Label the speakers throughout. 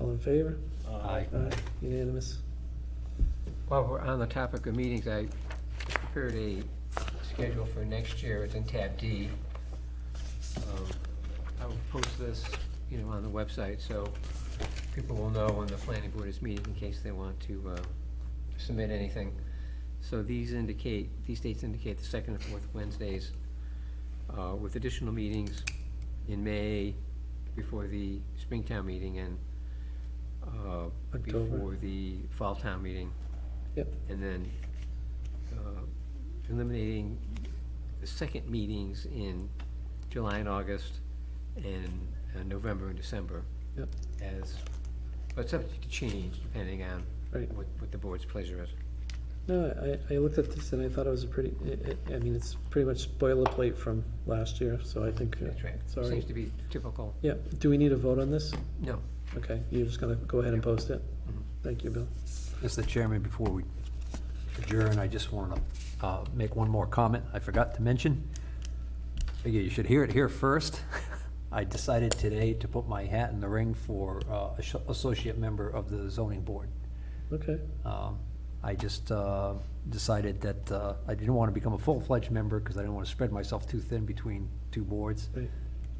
Speaker 1: All in favor?
Speaker 2: Aye.
Speaker 1: Aye, unanimous.
Speaker 3: While we're on the topic of meetings, I prepared a schedule for next year, it's in tab D. Um, I will post this, you know, on the website, so people will know when the planning board is meeting in case they want to uh, submit anything. So these indicate, these dates indicate the second and fourth Wednesdays, uh, with additional meetings in May before the Springtown meeting and uh,
Speaker 1: October.
Speaker 3: before the Fall Town meeting.
Speaker 1: Yep,
Speaker 3: And then uh, eliminating the second meetings in July and August and uh, November and December
Speaker 1: yep,
Speaker 3: as, but subject to change depending on
Speaker 1: Right.
Speaker 3: what, what the board's pleasure is.
Speaker 1: no, I, I looked at this and I thought it was a pretty, I- I, I mean, it's pretty much boilerplate from last year, so I think. uh,
Speaker 3: That's right.
Speaker 1: Sorry.
Speaker 3: Seems to be typical.
Speaker 1: Yeah, do we need a vote on this?
Speaker 3: No.
Speaker 1: Okay, you're just gonna go ahead and post it?
Speaker 3: Mhm.
Speaker 1: Thank you, Bill.
Speaker 2: Mr. Chairman, before we adjourn, I just want to make one more comment I forgot to mention. Figure you should hear it here first. I decided today to put my hat in the ring for uh, as- associate member of the zoning board.
Speaker 1: Okay,
Speaker 2: Um, I just uh, decided that uh, I didn't want to become a full-fledged member because I didn't want to spread myself too thin between two boards.
Speaker 1: great.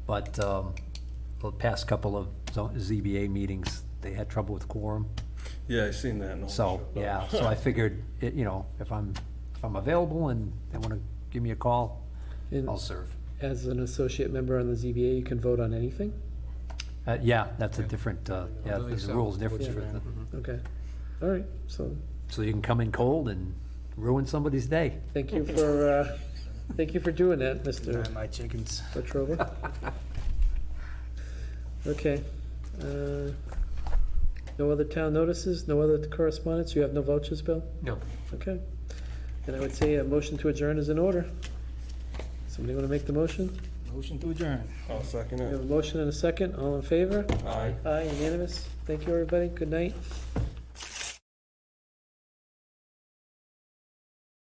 Speaker 2: But um, the past couple of zo- ZBA meetings, they had trouble with quorum.
Speaker 4: Yeah, I seen that. and all
Speaker 2: So,
Speaker 4: that shit.
Speaker 2: yeah, so I figured, it- you know, if I'm, if I'm available and they want to give me a call,
Speaker 1: And
Speaker 2: I'll serve.
Speaker 1: as an associate member on the ZBA, you can vote on anything?
Speaker 2: Uh, Yeah, that's a different, uh, yeah,
Speaker 3: believe
Speaker 2: there's
Speaker 3: so.
Speaker 2: rules difference. for
Speaker 1: Yeah. Mm-hmm.
Speaker 2: the-
Speaker 1: Okay, all right, so,
Speaker 2: So you can come in cold and ruin somebody's day.
Speaker 1: thank you for, uh, thank you for doing that, Mr.
Speaker 5: My chickens.
Speaker 1: Petrova. Okay, uh, no other town notices, no other correspondence, you have no vouchers, Bill?
Speaker 3: No.
Speaker 1: Okay, and I would say a motion to adjourn is in order. Somebody wanna make the motion?
Speaker 5: Motion to adjourn.
Speaker 4: I'll second
Speaker 1: We have
Speaker 4: it.
Speaker 1: a motion and a second, all in favor?
Speaker 4: Aye.
Speaker 1: Aye, unanimous. Thank you, everybody. Good night.